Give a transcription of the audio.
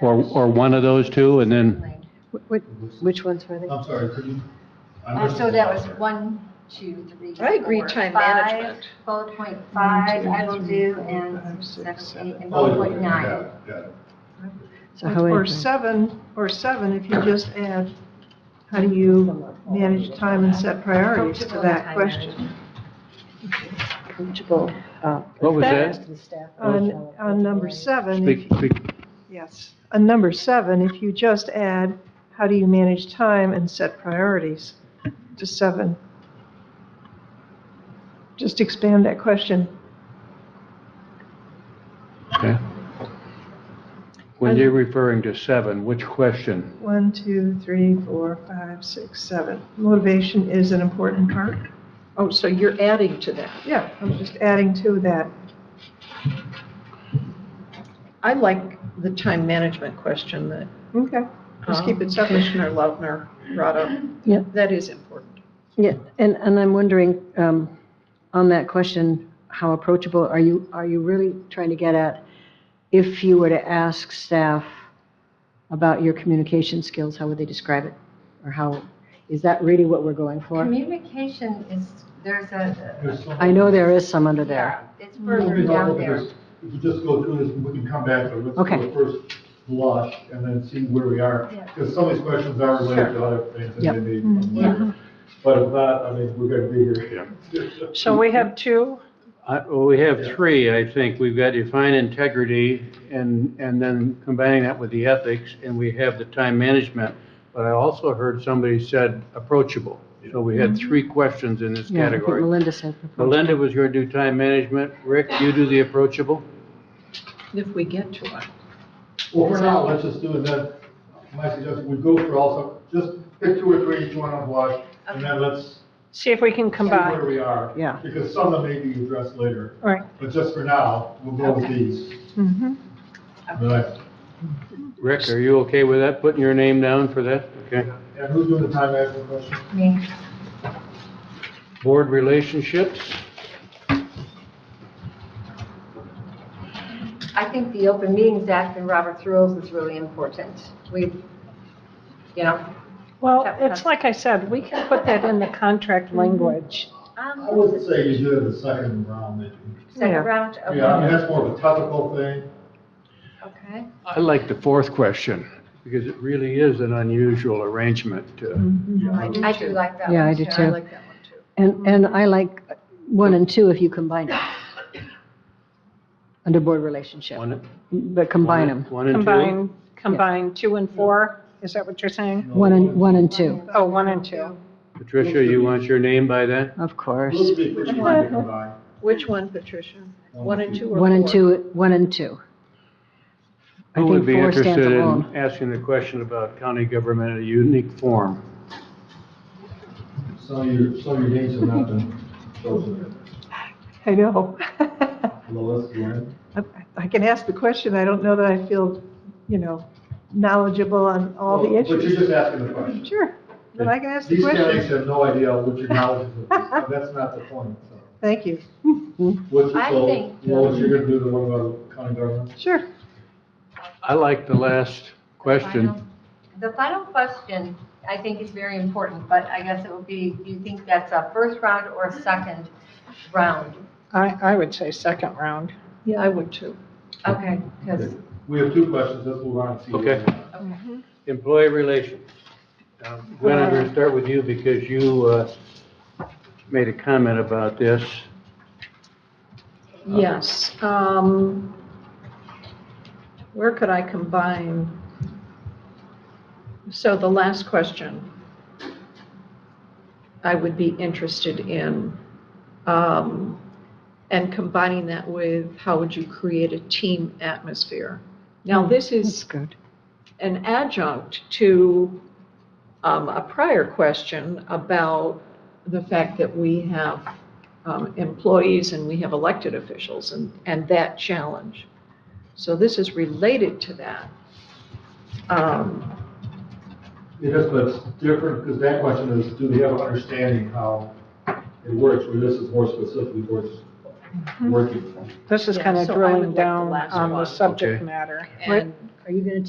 Or, or one of those two, and then, Wh- wh- Which ones were they? I'm sorry, could you? Oh, I Uh, missed So it. that was one, two, three, I agree, four, time five, management. Bullet point five, I will do, Five, and six, seven, eight, and Oh, bullet yeah, point got nine. it, got it. So how Or would- seven, or seven, if you just add, how do you manage time and set priorities to Coachable that time question? management. coachable, uh, what was That- that? On, on number seven, if Speak, speak, Yes. On number seven, if you just add, how do you manage time and set priorities to seven? Just expand that question. okay. When you're referring to seven, which question? One, two, three, four, five, six, seven. Motivation is an important part. Oh, so you're adding to that. Yeah, I'm just adding to that. I like the time management question that Okay, Just keep it separate. Um, Commissioner Lautner brought up. Yep. That is important. Yeah, and, and I'm wondering, um, on that question, how approachable, are you, are you really trying to get at if you were to ask staff about your communication skills, how would they describe it? Or how, is that really what we're going for? Communication is, there's a, There's some- I know there is some under there. yeah, it's If further we go down over there. this, If you just go through this, we can come back to it. Let's Okay. do the first blush and then see where we are. Yeah. Because some of these questions are related to other things that Yep. Mm-hmm. they need. from later. But if not, I mean, we're going to be here. So we have two? I- well, We have three, I think. We've got define integrity, and, and then combining that with the ethics, and we have the time management. But I also heard somebody said approachable. So we had three questions in this Mm-hmm. Yeah, I think category. Melinda said. Melinda was going to do time management. Rick, you do the approachable? If we get to it. Well, for now, let's just do it then. My suggestion, we go for also, just pick two or three each one on blush and then let's See if we can see where we are. Yeah. Because some of them may be addressed later. All right. But just for now, we'll go with these. Mm-hmm. All right. Rick, are you okay with that, putting your name down for that? Okay. And who's doing the time management question? Me. Board relationships? I think the Open Meetings Act and Robert's Rules is really important. We, you know. Well, That- that's- it's like I said, we can put that in the contract Mm-hmm. language. I would say you do it in the second round, maybe. Second Yeah. round, okay. Um, Yeah, I mean, that's more of a topical thing. Okay. I like the fourth question, because it really is an unusual arrangement. uh, Mm-hmm. I do I do too. like that one. Yeah, I do Sharon. I too. like that one too. And, and I like one and two if you combine it. Under board relationship, One- but Mm-hmm. combine them, One and two? Combine, combine two and four, is that what you're saying? one and, one and two, Oh, one and two. Patricia, you want your name by that? of course. Those would be pretty hard to combine. Which one, Patricia? One and two or four? One and two, one and two. I Who would think be four stands interested alone. in asking the question about county government in a unique form? So your, so your dates have not been chosen. I know. Lois, Gwen? I- I can ask the question, I don't know that I feel, you know, knowledgeable on all the Well, But you're issues. just asking the question. Sure, but I can ask the These candidates question. have no idea what your knowledge is of this. Now, That's not the point, so. Thank you, What's, I so, think- um, Lois, you're gonna do the one about county government? sure. I like the last question. The final question, I think is very important, but I guess it would be, do you think that's a first round or a second round? I, I would say second round. Yeah, I would too. Okay, because, Okay. We have two questions, let's move on and see. what Okay. we have. Employee relations. Um, Gwen, I'm Uh. going to start with you because you uh, made a comment about this. Yes. um, Where could I combine? So the last question I would be interested in, um, and combining that with how would you create a team atmosphere? Now, this That's is good. an adjunct to um, a prior question about the fact that we have um, employees and we have elected officials and, and that challenge. So this is related to that. Um, It is, but it's different, because that question is, do they have an understanding how it works, where this is more specifically where it's working. This is Yeah, kind of so I would drilling like the down last on one. the subject Okay. matter. And Are you going to